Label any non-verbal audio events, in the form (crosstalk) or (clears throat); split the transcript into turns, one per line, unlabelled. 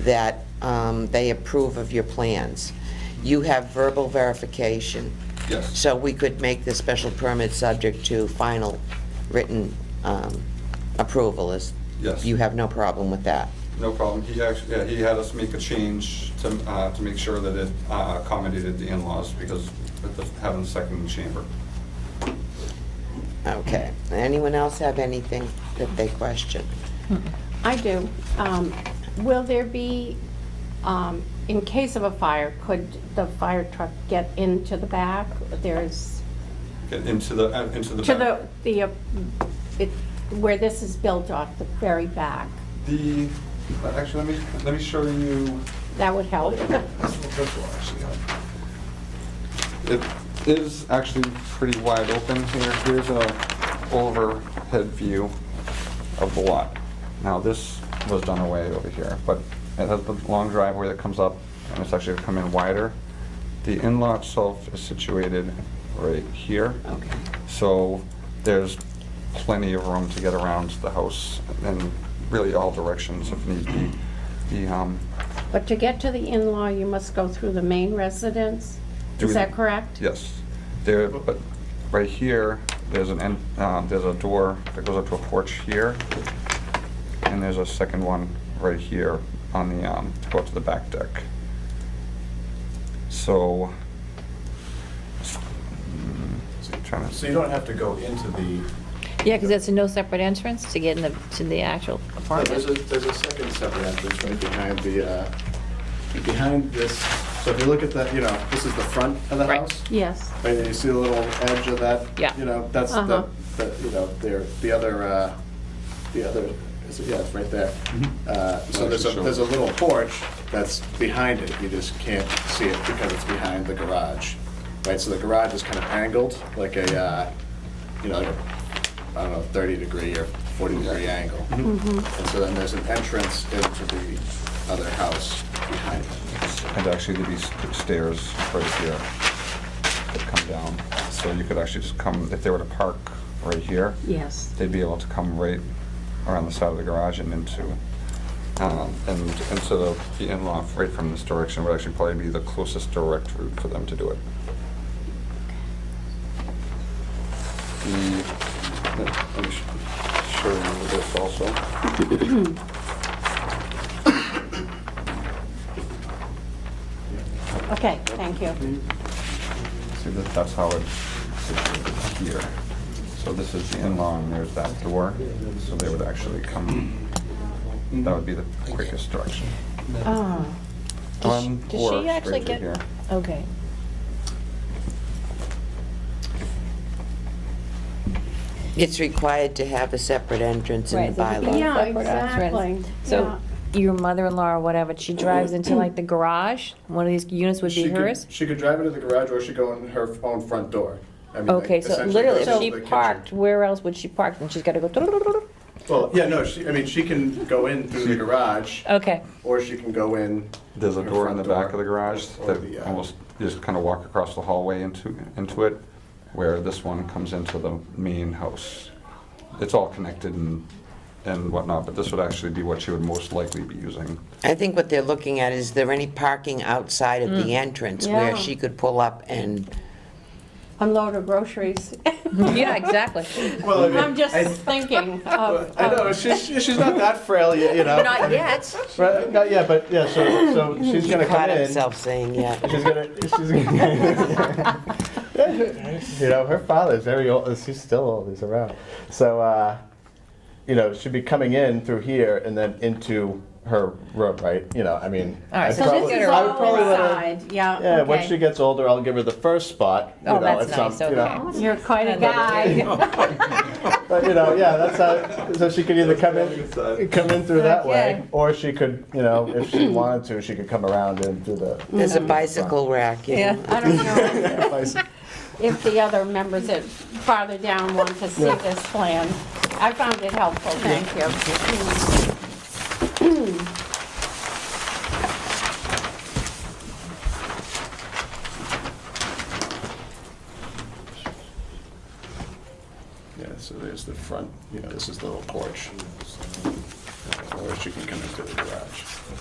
that um, they approve of your plans. You have verbal verification.
Yes.
So we could make the special permit subject to final written um, approval, is?
Yes.
You have no problem with that?
No problem. He actually, yeah, he had us make a change to, uh, to make sure that it uh, accommodated the in-laws because with us having a second chamber.
Okay. Anyone else have anything that they question?
I do. Um, Will there be, um, in case of a fire, could the fire truck get into the back? There's,
Get into the, uh, into the
to
back.
the, the, uh, it- where this is built off, the very back.
The, uh, actually, let me, let me show you
That would help.
This will- this will actually help. It is actually pretty wide open here. Here's a overhead view of the lot. Now, this was done away over here, but it has the long driveway that comes up, and it's actually come in wider. The in-law itself is situated right here.
Okay.
So there's plenty of room to get around the house in really all directions if need be. The, um,
But to get to the in-law, you must go through the main residence?
Do we-
Is that correct?
Yes. There, but right here, there's an, en- uh, there's a door that goes up to a porch here, and there's a second one right here on the, um, to go up to the back deck. So, mm, trying
So
to,
you don't have to go into the,
Yeah, because that's a no separate entrance to get in the, to the actual
No, there's a,
apartment.
there's a second separate entrance right behind the, uh, behind this, so if you look at the, you know, this is the front of the
Right.
house.
Yes.
Right, and you see the little edge of that?
Yeah.
You know, that's
Uh-huh.
the, the- you know, there, the other, uh, the other, is it- yeah, it's right there. Uh, So there's a,
Sure.
there's a little porch that's behind it, you just can't see it because it's behind the garage. Right, so the garage is kind of angled, like a, uh, you know, like a, I don't know, 30 degree or 40 degree angle. And so then there's an entrance into the other house behind it.
and actually there'd be st- stairs right here that come down. So you could actually just come, if they were to park right here,
Yes.
they'd be able to come right around the side of the garage and into, um, and into the- the in-law right from this direction would actually probably be the closest direct route for them to do it. The, let me sh- show you this also.
Okay, thank you.
See, that that's how it's situated here. So this is the in-law and there's that door, so they would actually come, that would be the quickest direction.
Oh,
Does she-
One
does
or
she
straight
actually
through
get-
here.
Oh, Okay.
It's required to have a separate entrance in the
Right, so if you
bylaw.
go
Yeah,
separate entrance-
exactly,
So your mother-in-law or whatever, she drives into like the garage, one of these units would be
She could-
hers?
She could drive into the garage or she go in her own front door. I mean,
Okay,
like,
so
essentially
literally,
goes
if
to
she
the kitchen.
parked, where else would she park? And she's got to go, (laughs)
Well, yeah, no, she, I mean, she can go in through the garage
okay.
or she can go in.
There's a
her
door in the
front
back of the garage
or the,
that
uh,
almost, you just kind of walk across the hallway into, into it, where this one comes into the main house. It's all connected and, and whatnot, but this would actually be what she would most likely be using.
I think what they're looking at, is there any parking outside of
Mm.
the entrance where
Yeah.
she could pull up and,
unload of groceries. (laughs)
Yeah, exactly.
Well, I mean,
I'm just
Oh, I-
thinking
well,
of.
I know, she's, she's not that frail yet, you know.
Not yet.
Right, not yet, but yeah, so, so she's
he
gonna
caught
come in.
himself saying,
(laughs)
yeah.
She's gonna, she's gonna. (laughs) you know, her father's very old. He's still old. He's around. So, uh, you know, she'd be coming in through here and then into her room, right? You know, I mean,
All right,
I'd
so this
probably,
is
I would
all
probably let her.
inside, yeah,
Yeah, once
okay.
she gets older, I'll give her the first spot. You
Oh,
know,
that's
at some-
nice,
you know.
okay.
You're quite a
I love it.
guy.
But you know, yeah, that's how. So she could either come in, come in through that
Okay.
way, or she could, you know, if
(clears throat)
she wanted to, she could come around and do the.
There's a bicycle rack, you
Yeah.
know.
I don't know
bicycle.
if the other members that farther down want to see this plan. I found it helpful, thank you.
Yeah, so there's the uh, front, you know, this is the little porch. Or she can come into the garage.